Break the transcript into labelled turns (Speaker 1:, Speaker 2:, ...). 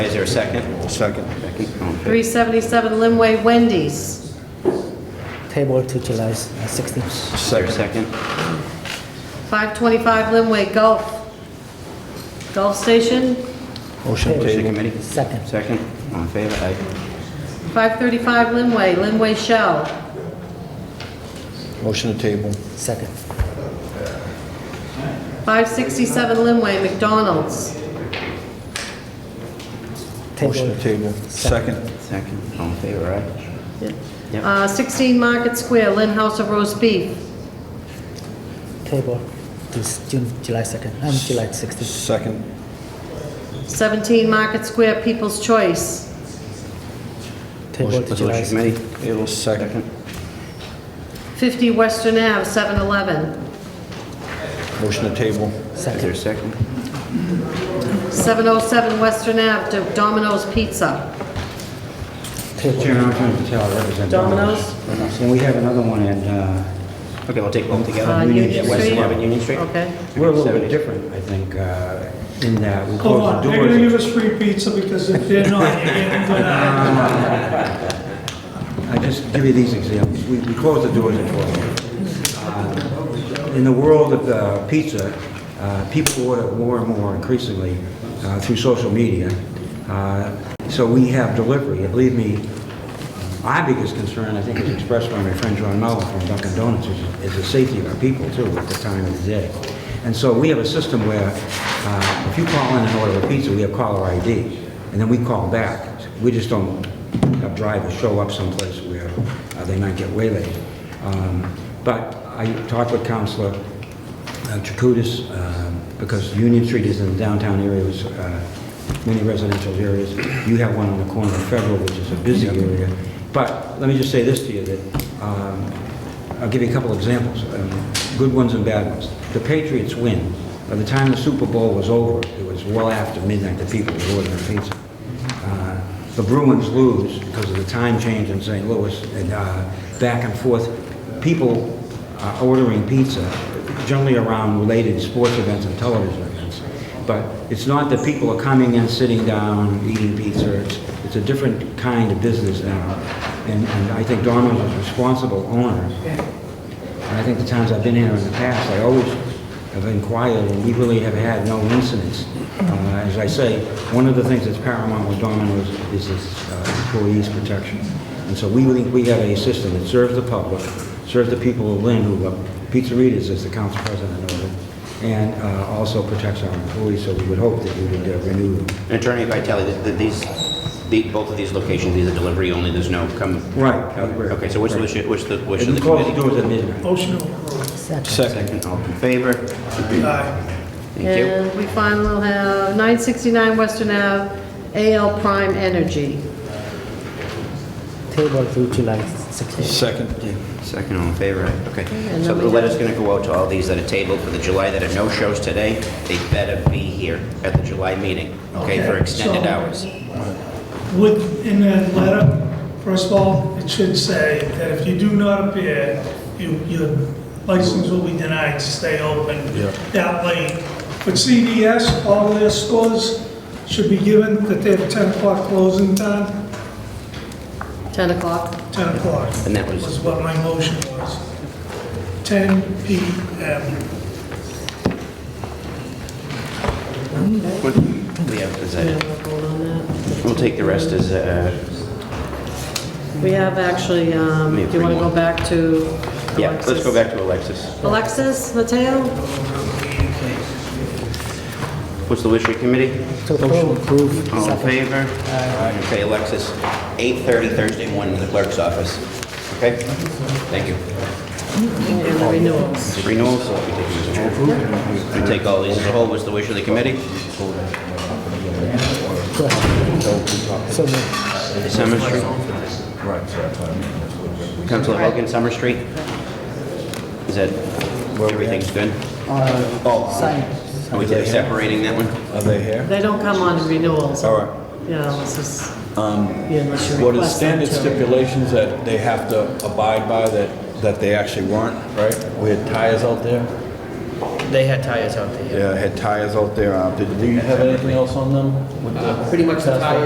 Speaker 1: Is there a second?
Speaker 2: Second.
Speaker 1: Becky? all in favor?
Speaker 3: 377 Limway Wendy's.
Speaker 4: Table to July 16th.
Speaker 1: Is there a second?
Speaker 3: 525 Limway Gulf. Gulf Station.
Speaker 2: Motion
Speaker 1: Motion to
Speaker 2: table.
Speaker 1: committee?
Speaker 4: Second.
Speaker 1: Second, all in favor? Aye.
Speaker 3: 535 Limway, Limway Shell.
Speaker 2: Motion to table.
Speaker 4: Second.
Speaker 3: 567 Limway McDonald's.
Speaker 2: Motion to
Speaker 4: Table.
Speaker 2: table. Second.
Speaker 1: Second, all in favor, aye. Yep,
Speaker 3: Uh, 16 Market Square, Lynn House of Roast Beef.
Speaker 4: Table to s- June, July 2nd, um, July 16th.
Speaker 2: Second.
Speaker 3: 17 Market Square, People's Choice.
Speaker 4: Table
Speaker 1: Motion-
Speaker 4: to
Speaker 1: resolution
Speaker 4: July.
Speaker 1: committee?
Speaker 2: Table second.
Speaker 3: 50 Western Ave, 7-Eleven.
Speaker 2: Motion to table.
Speaker 1: Is there a second?
Speaker 4: Second.
Speaker 3: 707 Western Ave, Do- Domino's Pizza.
Speaker 4: Table.
Speaker 1: Chairman, I'm trying to tell, I represent
Speaker 3: Domino's?
Speaker 1: Domino's. And we have another one at, uh, okay, we'll take both together.
Speaker 3: Uh, Union
Speaker 1: Yeah, West
Speaker 3: Street?
Speaker 1: 11 Union Street?
Speaker 3: Okay.
Speaker 5: We're a little bit different, I think, uh, in that we
Speaker 6: Hold
Speaker 5: close
Speaker 6: on,
Speaker 5: the
Speaker 6: they're gonna give
Speaker 5: doors.
Speaker 6: us free pizza because if they're not, you're getting denied.
Speaker 5: I just give you these examples. We we close the doors at 12. Uh, In the world of uh, pizza, uh, people order more and more increasingly uh, through social media. Uh, So we have delivery. And believe me, my biggest concern, I think, is expressed by my friend John Mello from Dunkin' Donuts, is- is the safety of our people, too, at the time of the day. And so we have a system where uh, if you call in and order a pizza, we have caller ID, and then we call back. We just don't have drivers show up someplace where uh, they might get waylaid. Um, But I talked with Counselor uh, Tracudis, um, because Union Street is in the downtown area, there's uh, many residential areas. You have one on the corner of Federal, which is a busy area. But let me just say this to you, that, um, I'll give you a couple examples, um, good ones and bad ones. The Patriots win. By the time the Super Bowl was over, it was well after midnight that people were ordering pizza. Uh, The Bruins lose because of the time change in St. Louis, and uh, back and forth, people are ordering pizza, generally around related sports events and television events. But it's not that people are coming in, sitting down, eating pizza, it's, it's a different kind of business now. And, and I think Domino's is a responsible owner and I think the times I've been here in the past, I always have inquired, and we really have had no incidents. Uh, As I say, one of the things that's paramount with Domino's is its uh, employees' protection. And so we think we have a system that serves the public, serves the people of Lynn, who uh, are pizzerias, as the council president noted, and uh, also protects our employees, so we would hope that you would uh, renew them.
Speaker 1: And Attorney Vitale, th- th- these, the- both of these locations, these are delivery only, there's no come...
Speaker 5: Uh, Right.
Speaker 1: Okay, so which, which, which the, which of
Speaker 5: And
Speaker 1: the
Speaker 5: we close the
Speaker 1: committee?
Speaker 5: doors at midnight.
Speaker 6: Motion to approve.
Speaker 4: Second.
Speaker 2: Second.
Speaker 1: Second, all in favor? Thank you.
Speaker 3: And we finally will have 969 Western Ave, AL Prime Energy.
Speaker 4: Table to July 16th.
Speaker 2: Second.
Speaker 1: Second, all in favor, aye. Okay.
Speaker 3: and
Speaker 1: So
Speaker 3: then
Speaker 1: the
Speaker 3: we
Speaker 1: letter's going to go out to all these that are tabled for the July that are no-shows today. They better be here at the July meeting, okay, for
Speaker 6: Okay,
Speaker 1: extended
Speaker 6: so-
Speaker 1: hours.
Speaker 6: Would, in that letter, first of all, it should say that if you do not appear, you, your license will be denied to stay open that late. But CDS, all their stores should be given that they have 10 o'clock closing time,
Speaker 3: 10 o'clock.
Speaker 6: 10 o'clock.
Speaker 1: And that was-
Speaker 6: Was what my motion was. 10 PM.
Speaker 1: What- We have, is that it? We'll take the rest as, uh,
Speaker 3: We have actually, um,
Speaker 1: Me,
Speaker 3: do you want
Speaker 1: three
Speaker 3: to
Speaker 1: more.
Speaker 3: go back to Alexis?
Speaker 1: yeah, let's go back to Alexis.
Speaker 3: Alexis Mateo?
Speaker 1: What's the wish of your committee?
Speaker 4: To approve. Approve.
Speaker 2: Oh,
Speaker 1: All in
Speaker 4: Second.
Speaker 1: favor? Okay, Alexis, 8:30 Thursday morning in the clerk's office. Okay? Thank you.
Speaker 3: And the renewals.
Speaker 1: Renewals, so we take these as a whole. We take all these as a whole, what's the wish of the committee?
Speaker 4: So moved.
Speaker 1: Summer Street? Councilor Hogan, Summer Street? Is that, everything's good?
Speaker 2: oh.
Speaker 4: Sign.
Speaker 1: Are we separating that one?
Speaker 2: Are they here?
Speaker 3: They don't come on renewals.
Speaker 2: All right.
Speaker 3: Yeah, this is, yeah, unless you
Speaker 2: Um, What is
Speaker 3: request them
Speaker 2: standard
Speaker 3: to.
Speaker 2: stipulations that they have to abide by that, that they actually weren't, right? We had tires out there.
Speaker 4: They had tires out there.
Speaker 2: Yeah, had tires out there. Uh, Did you have anything else on them? with the-
Speaker 7: Pretty much the tire